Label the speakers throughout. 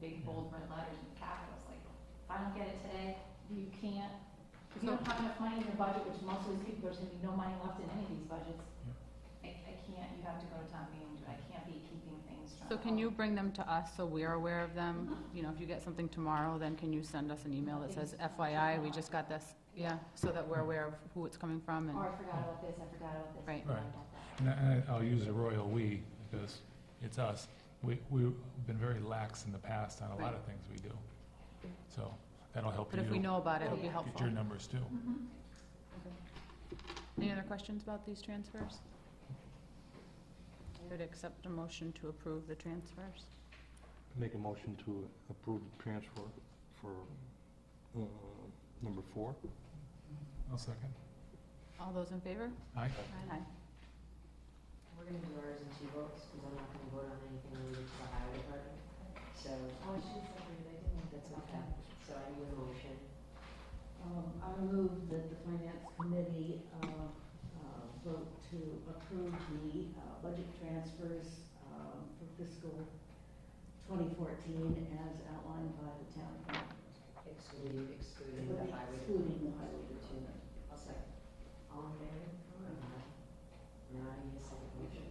Speaker 1: big bold red letters in capitals, like, if I don't get it today, you can't, if you don't have enough money in your budget, which most of these people, there's gonna be no money left in any of these budgets. I, I can't, you have to go to town meeting, I can't be keeping things.
Speaker 2: So can you bring them to us so we're aware of them? You know, if you get something tomorrow, then can you send us an email that says FYI, we just got this? Yeah, so that we're aware of who it's coming from and,
Speaker 1: Or Oh, I forgot about this, I forgot about this. I
Speaker 2: Right.
Speaker 1: forgot
Speaker 3: Right.
Speaker 1: about that.
Speaker 3: And I- And I- I'll use the royal "we" because it's us. We, we've been very lax in the past on a lot of things we do. So that'll help
Speaker 2: but if we
Speaker 3: you
Speaker 2: know about it, it'll be
Speaker 3: get
Speaker 2: helpful.
Speaker 3: your numbers too.
Speaker 1: Mhm.
Speaker 2: Any other questions about these transfers? Could accept a motion to approve the transfers.
Speaker 4: Make a motion to approve the transfer for uh, number four.
Speaker 3: I'll second.
Speaker 2: All those in favor?
Speaker 3: Aye.
Speaker 2: Aye.
Speaker 5: We're gonna do ours in two votes, because I'm not gonna vote on anything related to the highway department, so.
Speaker 1: Oh, I should have separated, I didn't.
Speaker 5: That's okay. So I need a motion.
Speaker 6: Um, I move that the finance committee, uh, uh, vote to approve the, uh, budget transfers, um, for fiscal twenty fourteen as outlined by the town plan.
Speaker 5: Excluding, excluding the highway.
Speaker 6: Excluding the highway department.
Speaker 5: I'll second. All in favor? Aye. Now I need a second motion.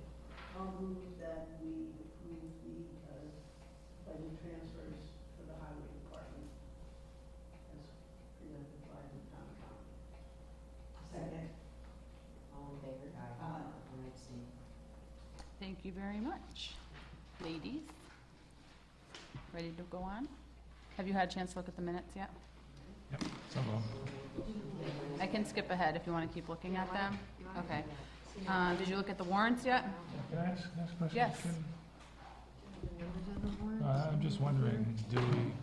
Speaker 6: I'll move that we approve the, uh, budget transfers for the highway department as presented by the town council. Second.
Speaker 5: All in favor? Aye.
Speaker 6: Aye.
Speaker 5: And I abstain.
Speaker 2: Thank you very much. Ladies, ready to go on? Have you had a chance to look at the minutes yet?
Speaker 3: Some of 'em.
Speaker 2: I can skip ahead if you want to keep looking at them.
Speaker 5: You wanna
Speaker 2: Okay.
Speaker 5: do that?
Speaker 2: Uh, did you look at the warrants yet?
Speaker 3: Can I ask, ask a question?
Speaker 2: Yes.
Speaker 3: Kim?
Speaker 5: Numbers on the
Speaker 3: Uh,
Speaker 5: warrant?
Speaker 3: I'm just wondering, do we,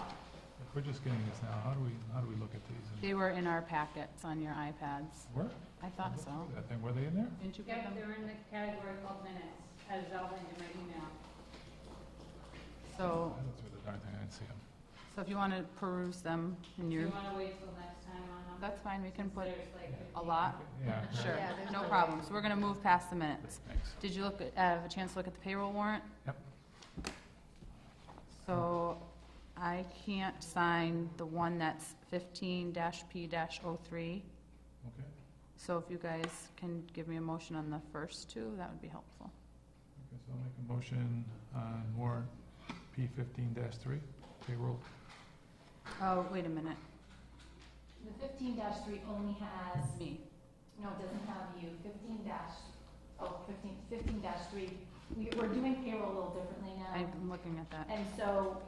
Speaker 3: if we're just getting this now, how do we, how do we look at these?
Speaker 2: They were in our packets on your iPads.
Speaker 3: Were?
Speaker 2: I thought so.
Speaker 3: That thing, were they in there?
Speaker 2: Didn't you put them?
Speaker 1: in the category called minutes, as outlined in my email.
Speaker 2: So,
Speaker 3: I looked through the darn thing, I didn't see 'em.
Speaker 2: so if you want to peruse them in your,
Speaker 1: wanna wait till next time on
Speaker 2: that's fine, we can put a lot.
Speaker 3: Yeah.
Speaker 2: Sure,
Speaker 5: Yeah, there's
Speaker 2: no
Speaker 5: no-
Speaker 2: problem. So we're going to move past the minutes.
Speaker 3: Thanks.
Speaker 2: Did you look, at- have a chance to look at the payroll warrant?
Speaker 3: Yep.
Speaker 2: So I can't sign the one that's fifteen dash P dash oh three.
Speaker 3: Okay.
Speaker 2: So if you guys can give me a motion on the first two, that would be helpful.
Speaker 3: Okay, so I'll make a motion on warrant P fifteen three, payroll.
Speaker 2: Oh, wait a minute,
Speaker 1: The fifteen dash three only has,
Speaker 2: that's me.
Speaker 1: no, it doesn't have you, fifteen dash, oh, fifteen, fifteen dash three, we, we're doing payroll a little differently now.
Speaker 2: I'm looking at that.
Speaker 1: And so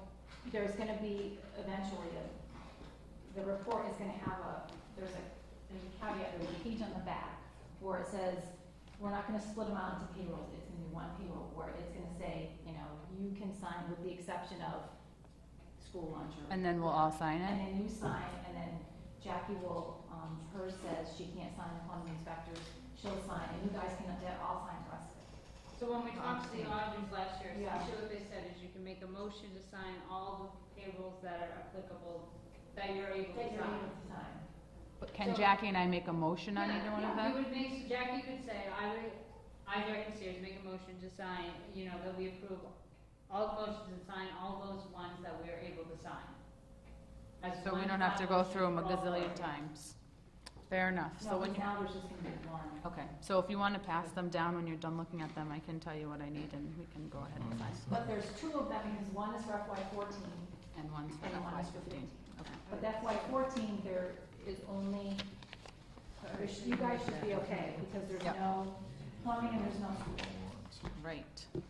Speaker 1: there's gonna be eventually, a- the report is gonna have a, there's a, there's a caveat, there's a page on the back where it says, we're not gonna split them out into payrolls, it's gonna be one payroll where it's gonna say, you know, you can sign with the exception of school lunch or.
Speaker 2: And then we'll all sign
Speaker 1: And
Speaker 2: it?
Speaker 1: then you sign, and then Jackie will, um, hers says she can't sign upon the inspectors, she'll sign, and you guys can, all sign to us.
Speaker 7: So when we talked to the auditors last year,
Speaker 1: Yeah.
Speaker 7: essentially what they said is you can make a motion to sign all the payrolls that are applicable, that you're able
Speaker 1: That
Speaker 7: to
Speaker 1: you're
Speaker 7: sign.
Speaker 1: able to sign.
Speaker 2: But Can Jackie and I make a motion on either
Speaker 7: Yeah,
Speaker 2: one of
Speaker 7: yeah, we
Speaker 2: them?
Speaker 7: would make, so Jackie could say, I would, I, Jackie Sears, make a motion to sign, you know, that we approve all the motions and sign all those ones that we are able to sign. As
Speaker 2: So we
Speaker 7: one
Speaker 2: don't have to
Speaker 7: final
Speaker 2: go
Speaker 7: motion
Speaker 2: through them a
Speaker 7: for all of
Speaker 2: gazillion
Speaker 7: them.
Speaker 2: times. Fair enough. So
Speaker 1: No,
Speaker 2: when
Speaker 1: because
Speaker 2: you,
Speaker 1: now there's just gonna be one.
Speaker 2: okay, so if you want to pass them down when you're done looking at them, I can tell you what I need and we can go ahead and sign.
Speaker 1: But there's two of them, because one is for FY fourteen
Speaker 2: And one's for
Speaker 1: and one
Speaker 2: FY
Speaker 1: is for
Speaker 2: fifteen.
Speaker 1: fifteen.
Speaker 2: Okay.
Speaker 1: But FY fourteen, there is only, there should- you guys should be okay, because there's
Speaker 2: Yep.
Speaker 1: no plumbing
Speaker 3: Um,
Speaker 1: and there's no school.
Speaker 2: Right.
Speaker 5: I didn't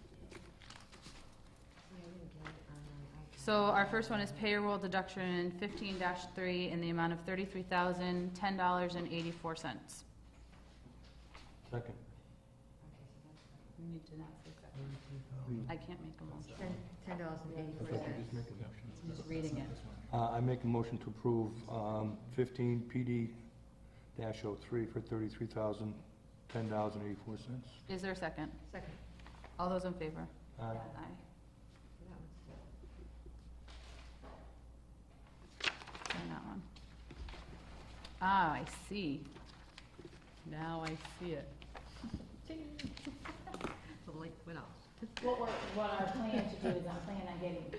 Speaker 5: get it on my iPad.
Speaker 2: So our first one is payroll deduction fifteen three in the amount of thirty-three thousand, ten dollars and eighty-four cents.
Speaker 5: Okay,
Speaker 4: Second.
Speaker 5: so that's fine.
Speaker 2: I can't make a motion.
Speaker 5: Ten, ten dollars and
Speaker 4: I
Speaker 5: eighty-four
Speaker 4: thought you
Speaker 5: cents.
Speaker 4: just make a motion.
Speaker 2: Just reading it.
Speaker 4: Uh, I make a motion to approve um, fifteen PD dash oh three for thirty-three thousand, ten dollars and eighty-four cents.
Speaker 2: Is there a second?
Speaker 5: Second,
Speaker 2: All those in favor?
Speaker 4: Aye.
Speaker 2: Aye.
Speaker 5: so that one's done.
Speaker 2: Sign that one. Ah, I see. Now I see it.
Speaker 5: The light went off.
Speaker 1: What we're, what our plan to do is I'm planning on getting